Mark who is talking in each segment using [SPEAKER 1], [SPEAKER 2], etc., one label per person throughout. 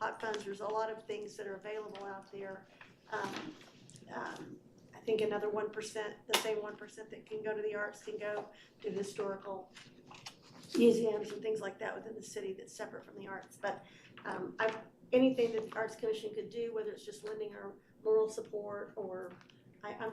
[SPEAKER 1] hot funds, there's a lot of things that are available out there. Um, um, I think another one percent, the same one percent that can go to the arts can go to historical museums and things like that within the city that's separate from the arts. But um, I, anything that the Arts Commission could do, whether it's just lending or moral support or, I, I'm,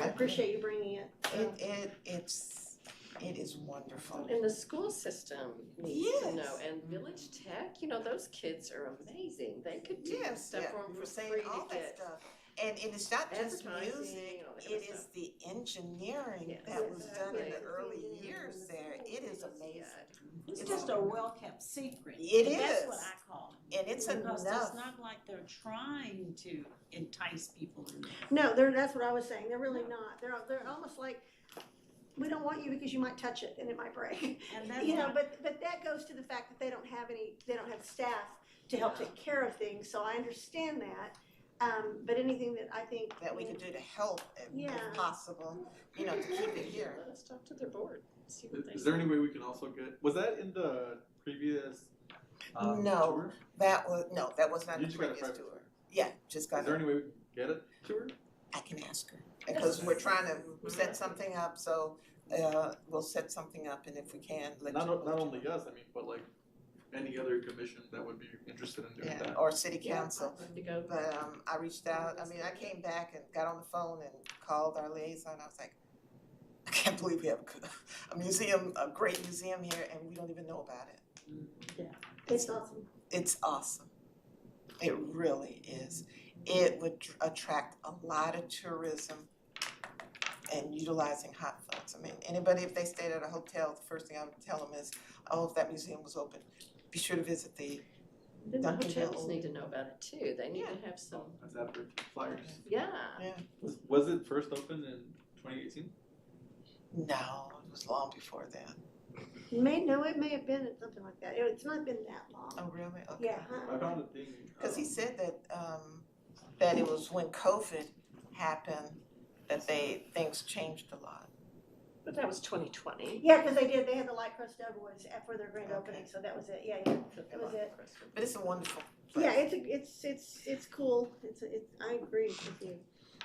[SPEAKER 1] I appreciate you bringing it.
[SPEAKER 2] It it it's it is wonderful.
[SPEAKER 3] And the school system needs to know,
[SPEAKER 2] Yes.
[SPEAKER 3] and Village Tech, you know, those kids are amazing, they could do
[SPEAKER 2] Yes,
[SPEAKER 3] stuff
[SPEAKER 2] yeah,
[SPEAKER 3] for 'em
[SPEAKER 2] we're
[SPEAKER 3] for
[SPEAKER 2] saying
[SPEAKER 3] free
[SPEAKER 2] all
[SPEAKER 3] to
[SPEAKER 2] that
[SPEAKER 3] get.
[SPEAKER 2] stuff. And and it's not just
[SPEAKER 3] Advertising,
[SPEAKER 2] music,
[SPEAKER 3] all that kind of
[SPEAKER 2] it is the engineering
[SPEAKER 3] Yes.
[SPEAKER 2] that was done in the
[SPEAKER 3] Exactly.
[SPEAKER 2] early years there. It is
[SPEAKER 3] Yeah,
[SPEAKER 2] amazing.
[SPEAKER 4] It's
[SPEAKER 2] It's
[SPEAKER 4] just
[SPEAKER 2] all-
[SPEAKER 4] a well-kept secret.
[SPEAKER 2] It
[SPEAKER 4] And That's what
[SPEAKER 2] is.
[SPEAKER 4] I call it.
[SPEAKER 2] And it's
[SPEAKER 4] Because it's
[SPEAKER 2] enough,
[SPEAKER 4] not like they're trying to entice people in there.
[SPEAKER 1] No, they're, that's what I was saying, they're really not, they're, they're almost like, we don't want you because you might touch it and it might break.
[SPEAKER 4] And that's
[SPEAKER 1] You know,
[SPEAKER 4] what-
[SPEAKER 1] but, but that goes to the fact that they don't have any, they don't have staff to help take care of things, so I understand that. Um, but anything that I think.
[SPEAKER 2] that we could do to help if-
[SPEAKER 1] Yeah.
[SPEAKER 2] if possible, you know, to keep it here.
[SPEAKER 3] Let's talk to their board, see what they.
[SPEAKER 5] Is there any
[SPEAKER 3] think.
[SPEAKER 5] way we can also get, was that in the previous, um,
[SPEAKER 2] No.
[SPEAKER 5] tour?
[SPEAKER 2] That was, no, that was not the
[SPEAKER 5] You just got a
[SPEAKER 2] previous
[SPEAKER 5] private
[SPEAKER 2] tour.
[SPEAKER 5] tour.
[SPEAKER 2] Yeah, just got,
[SPEAKER 5] Is there
[SPEAKER 2] it.
[SPEAKER 5] any way we can get a tour?
[SPEAKER 2] I can ask her, because we're trying
[SPEAKER 3] Mm-hmm.
[SPEAKER 2] to set something up, so uh we'll set something up and if we can, let you.
[SPEAKER 5] Not, o-
[SPEAKER 2] let
[SPEAKER 5] not
[SPEAKER 2] you
[SPEAKER 5] only us, I mean, but like any other commission that would be interested in doing
[SPEAKER 2] Yeah,
[SPEAKER 5] that.
[SPEAKER 2] or city
[SPEAKER 3] Yeah,
[SPEAKER 2] council.
[SPEAKER 3] I'd love to go.
[SPEAKER 2] But um, I reached out, I mean, I came back and got on the phone and called our liaison, I was like, I can't believe we have a museum, a great museum here and we don't even know about it.
[SPEAKER 1] It's awesome.
[SPEAKER 2] It's awesome. It really is. It would tr- attract a lot of tourism and utilizing hot funds. I mean, anybody, if they stayed at a hotel, the first thing I would tell them is, oh, if that museum was open, be sure to visit the,
[SPEAKER 3] Then the
[SPEAKER 2] Duncan
[SPEAKER 3] hotels
[SPEAKER 2] Hill.
[SPEAKER 3] need to know about it too, they need to have some,
[SPEAKER 5] So, That's after flyers.
[SPEAKER 3] yeah.
[SPEAKER 5] Was, was it first opened in twenty eighteen?
[SPEAKER 2] no, it was long before that.
[SPEAKER 1] May, no, it may have been something like that, It- it's not been that long.
[SPEAKER 2] Oh, really? Okay.
[SPEAKER 1] Yeah.
[SPEAKER 5] I found a thing.
[SPEAKER 2] Cause he
[SPEAKER 5] um,
[SPEAKER 2] said that, um, that it was when COVID happened, that they, things changed a lot.
[SPEAKER 3] But that was twenty twenty.
[SPEAKER 1] Yeah, cause they did, they had the Light Crust Doughboys for their grand
[SPEAKER 2] Okay.
[SPEAKER 1] opening, so that was it, yeah, yeah. That was it.
[SPEAKER 2] But it's a wonderful place.
[SPEAKER 1] Yeah, it's, a- it's, it's, it's cool, it's, it's, I agree with you.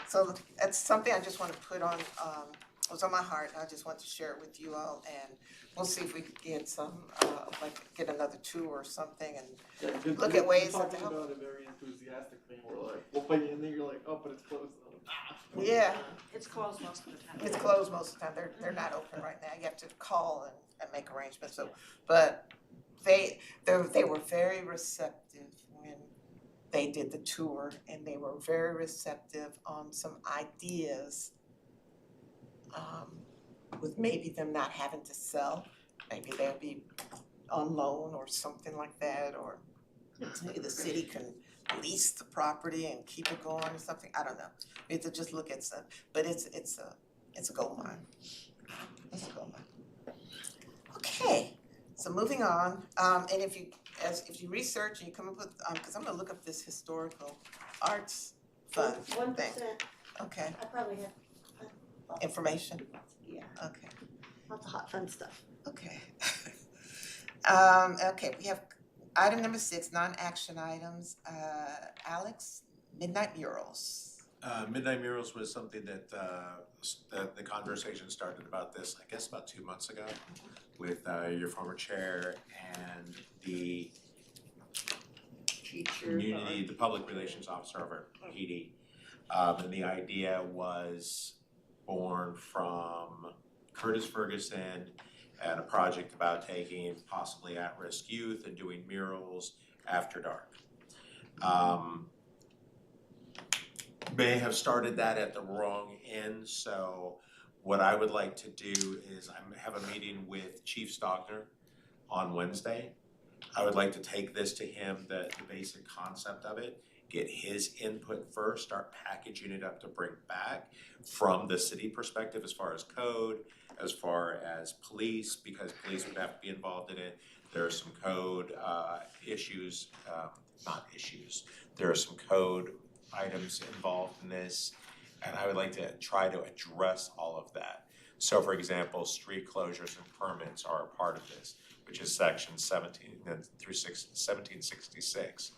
[SPEAKER 2] So that's something I just wanna put on, um, it was on my heart, and I just want to share it with you all, and we'll see if we can get some, uh, like, get another tour or something, and
[SPEAKER 5] Yeah,
[SPEAKER 2] look
[SPEAKER 5] 'cause
[SPEAKER 2] at
[SPEAKER 5] you're- you're
[SPEAKER 2] ways to
[SPEAKER 5] Talking
[SPEAKER 2] help.
[SPEAKER 5] about it very enthusiastically, and we're like, we'll put you in there, you're like, oh, but it's closed. And I'm like, "Ah."
[SPEAKER 2] Yeah.
[SPEAKER 4] It's closed most of the time.
[SPEAKER 2] it's closed most of the time, they're, they're not open right now, you have to call and, and make arrangements, so, but they, they, they were very receptive when they did the tour, and they were very receptive on some ideas, um, with maybe them not having to sell, maybe they'll be on loan or something like that, or maybe the city can lease the property and keep it going or something, I don't know. We have to just look at stuff, but it's, it's a, it's a gold mine. It's a gold mine. Okay, so moving on, um, and if you, as, if you research and you come up with, um, cause I'm gonna look up this historical arts fund
[SPEAKER 1] One
[SPEAKER 2] thing,
[SPEAKER 1] percent,
[SPEAKER 2] okay,
[SPEAKER 1] I probably have,
[SPEAKER 2] information,
[SPEAKER 1] yeah,
[SPEAKER 2] okay.
[SPEAKER 1] lots of hot fun stuff.
[SPEAKER 2] Okay. Um, okay, we have item number six, non-action items, uh, Alex, Midnight Murals.
[SPEAKER 6] Uh, Midnight Murals was something that, uh, s- that the conversation started about this, I guess about two months ago with, uh, your former chair and the
[SPEAKER 3] Teacher.
[SPEAKER 6] community, the public relations officer of our PD. Um, and the idea was born from Curtis Ferguson and a project about taking possibly at-risk youth and doing murals after dark. Um, may have started that at the wrong end, so what I would like to do is I have a meeting with Chief Stockner on Wednesday. I would like to take this to him, the, the basic concept of it, get his input first, start packaging it up to bring back from the city perspective as far as code, as far as police, because police would have to be involved in it. There are some code, uh, issues, um, not issues, there are some code items involved in this. And I would like to try to address all of that. So for example, street closures and permits are a part of this which is section seventeen and through six, seventeen sixty-six.